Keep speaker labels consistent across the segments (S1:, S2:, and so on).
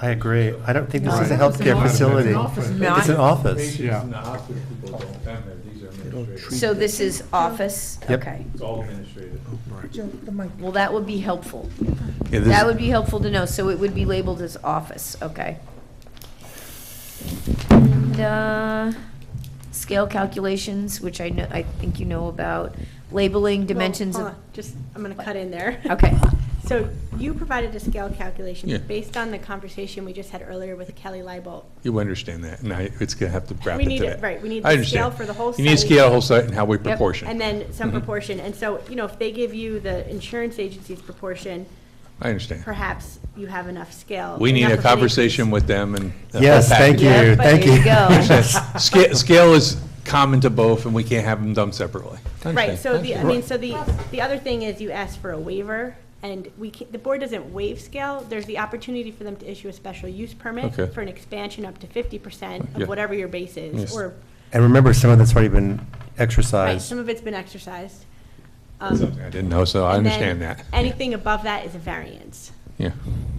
S1: I agree. I don't think this is a
S2: Right.
S1: healthcare
S2: It's an
S1: facility.
S2: office.
S3: Not-
S1: It's an office.
S2: Yeah.
S4: Patients in the hospital, people don't come there, these are administrative.
S3: So this is office?
S1: Yep.
S3: Okay.
S4: It's all administrative.
S3: Well, that would be helpful.
S1: Yeah, this-
S3: That would be helpful to know, Oh, so it would be labeled as office, okay. And, uh, scale calculations, which I know, I think you know about, labeling, dimensions
S5: Well,
S3: of,
S5: hold on, Just, I'm going to cut in there.
S3: Okay.
S5: So you provided a scale calculation
S6: Yeah.
S5: based on the conversation we just had earlier with Kelly Leibolt.
S6: You understand that, and I, it's gonna have to wrap
S5: We
S6: it
S5: need
S6: to
S5: it-
S6: that.
S5: right, we need
S6: I
S5: the
S6: understand.
S5: scale for the whole
S6: You need to
S5: site.
S6: scale the whole site and how we proportion.
S5: And then some
S6: Mhm.
S5: proportion. And so, you know, if they give you the insurance agency's proportion,
S6: I understand.
S5: perhaps you have enough scale.
S6: We need
S5: enough
S6: a
S5: of an
S6: conversation
S5: increase.
S6: with them and. the whole
S1: Yes, thank
S6: package.
S1: you,
S3: Yeah, but
S1: thank
S3: there
S1: you.
S3: you go.
S6: Sca- Scale is common to both, and we can't have them done separately. I
S5: Right,
S6: understand.
S5: so the, I
S6: understand.
S5: mean, so the, the other thing is you ask for a waiver, and we can, the board doesn't waive scale. There's the opportunity for them to issue a special use permit
S6: Okay.
S5: for an expansion up to fifty percent
S6: Yeah.
S5: of whatever your base
S6: Yes.
S5: is, or,
S1: And remember, some of that's already been
S5: right,
S1: exercised.
S5: some of it's been exercised. Um,
S6: That's something I didn't know, so I
S5: and then
S6: understand that. Yeah.
S5: Anything above that is a variance.
S6: Yeah,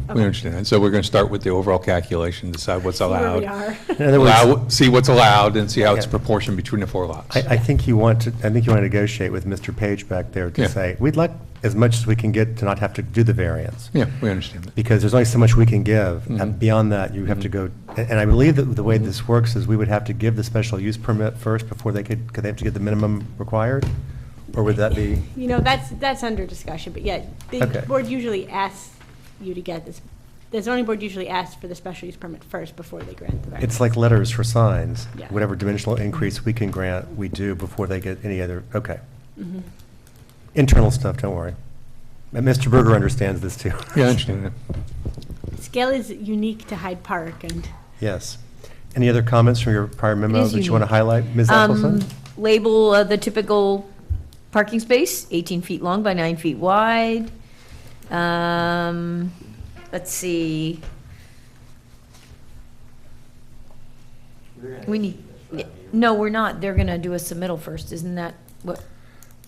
S6: we
S5: Okay.
S6: understand that. So we're gonna start with the overall calculation, decide what's
S5: See where
S6: allowed.
S5: we are.
S1: In other words,
S6: Allow- See what's allowed and see how it's
S1: Yeah.
S6: proportioned between the four lots.
S1: I, I think you want to, I think you want to negotiate with Mr. Page back there
S6: Yeah.
S1: to say, we'd like as much as we can get to not have to do the variance.
S6: Yeah, we understand that.
S1: Because there's only so much we can give, and
S6: Mhm.
S1: beyond that, you have to
S6: Mhm.
S1: go, a- and I believe that the way
S6: Mhm.
S1: this works is we would have to give the special use permit first before they could, could they have to get the minimum required? Or would that be?
S5: You know, that's, that's under discussion, but yeah,
S1: Okay.
S5: the board usually asks you to get this, the zoning board usually asks for the special use permit first before they grant the variance.
S1: It's like letters for signs.
S5: Yeah.
S1: Whatever dimensional increase we can grant, we do before they get any other, okay.
S3: Mm-hmm.
S5: Mhm.
S1: Internal stuff, don't worry. And Mr. Berger understands this too.
S6: Yeah, I understand that.
S5: Scale is unique to Hyde Park, and
S1: Yes. Any other comments from your prior memo
S3: is
S1: that you want to
S3: unique.
S1: highlight, Ms.
S3: um,
S1: Appleton?
S3: label uh, the typical parking space, eighteen feet long by nine feet wide. Um, let's see. We need, no, we're not. They're gonna do a submittal first, isn't that what?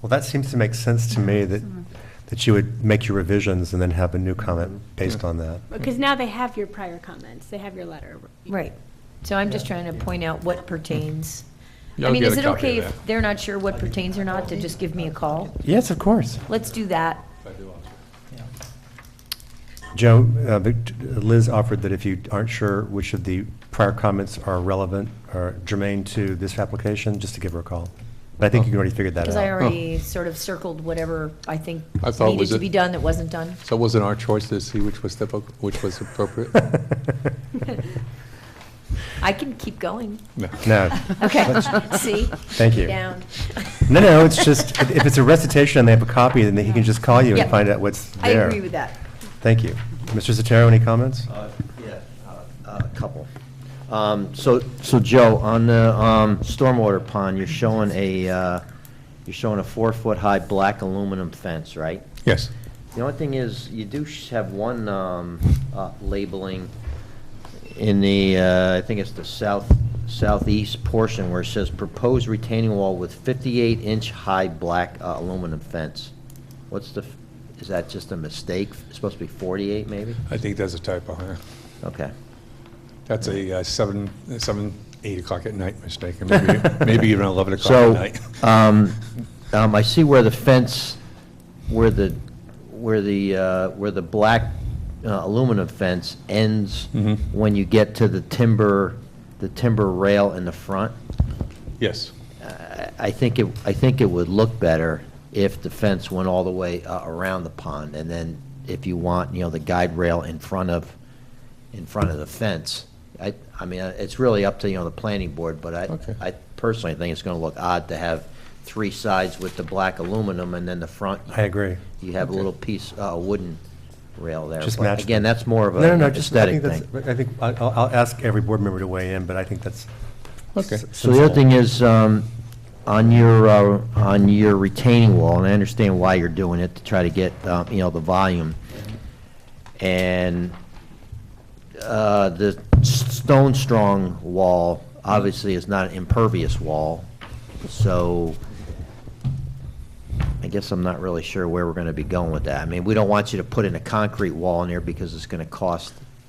S1: Well, that seems to make sense to me that, that you would make your revisions and then have a new comment
S3: Mm-hmm.
S1: based on that.
S5: because now they have your prior comments, they have your letter.
S3: Right, so I'm just trying to point out what pertains. I
S6: Y'all
S3: mean,
S6: get
S3: is
S6: a
S3: it
S6: copy
S3: okay
S6: of
S3: if
S6: that.
S3: they're not sure what pertains or not, to just give me a call?
S1: Yes, of course.
S3: Let's do that.
S1: Joe, uh, but Liz offered that if you aren't sure which of the prior comments are relevant or germane to this application, just to give her a call. But I think you already figured that
S3: Because I
S1: out.
S3: already sort of circled whatever I think
S6: I thought
S3: needed
S6: was
S3: to
S6: it-
S3: be done that wasn't done.
S6: So was it our choice to see which was, the appro- which was appropriate?
S3: I can keep going.
S6: No.
S1: No.
S3: Okay,
S1: Let's-
S3: see?
S1: Thank you.
S3: Down.
S1: No, no, it's just, if if it's a recitation and they have a copy, then he can just call you and
S3: Yep.
S1: find out what's
S3: I
S1: there.
S3: agree with that.
S1: Thank you. Mr. Sotero, any comments?
S7: Uh, Yeah, uh, uh, a couple. Um, So, so Joe, on the um, stormwater pond, you're showing a, uh, you're showing a four-foot-high black aluminum fence, right?
S6: Yes.
S7: The only thing is, you do sh- have one um, uh, labeling in the, uh, I think it's the south, southeast portion where it says proposed retaining wall with 58-inch-high black uh, aluminum fence. What's the, f- is that just a mistake? It's supposed to be 48, maybe?
S6: I think that's a typo, huh?
S7: Okay.
S6: That's a uh, seven, uh, seven, eight o'clock at night mistake, and maybe, maybe even 11 o'clock at
S7: So,
S6: night.
S7: um, um, I see where the fence, where the, where the, uh, where the black uh, aluminum fence ends
S6: Mhm.
S7: when you get to the timber, the timber rail in the front.
S6: Yes.
S7: I I think it, I think it would look better if the fence went all the way uh, around the pond, and then if you want, you know, the guide rail in front of, in front of the fence. I, I mean, uh, it's really up to, you know, the planning board, but I,
S6: Okay.
S7: I personally think it's gonna look odd to have three sides with the black aluminum, and then the front,
S1: I agree.
S7: you have a
S6: Okay.
S7: little piece, uh, a wooden rail there.
S1: Just
S7: But
S1: match
S7: Again,
S1: them.
S7: that's more of
S1: No, no,
S7: an
S1: no, just, I
S7: aesthetic
S1: think that's,
S7: thing.
S1: I think, I- I'll, I'll ask every board member to weigh in, but I think that's.
S6: Okay.
S1: s-
S7: So the other
S1: sensible.
S7: thing is, um, on your, uh, on your retaining wall, and I understand why you're doing it, to try to get, um, you know, the volume, and uh, the s- stone strong wall obviously is not an impervious wall, so I guess I'm not really sure where we're gonna be going with that. I mean, we don't want you to put in a concrete wall in there because it's gonna cost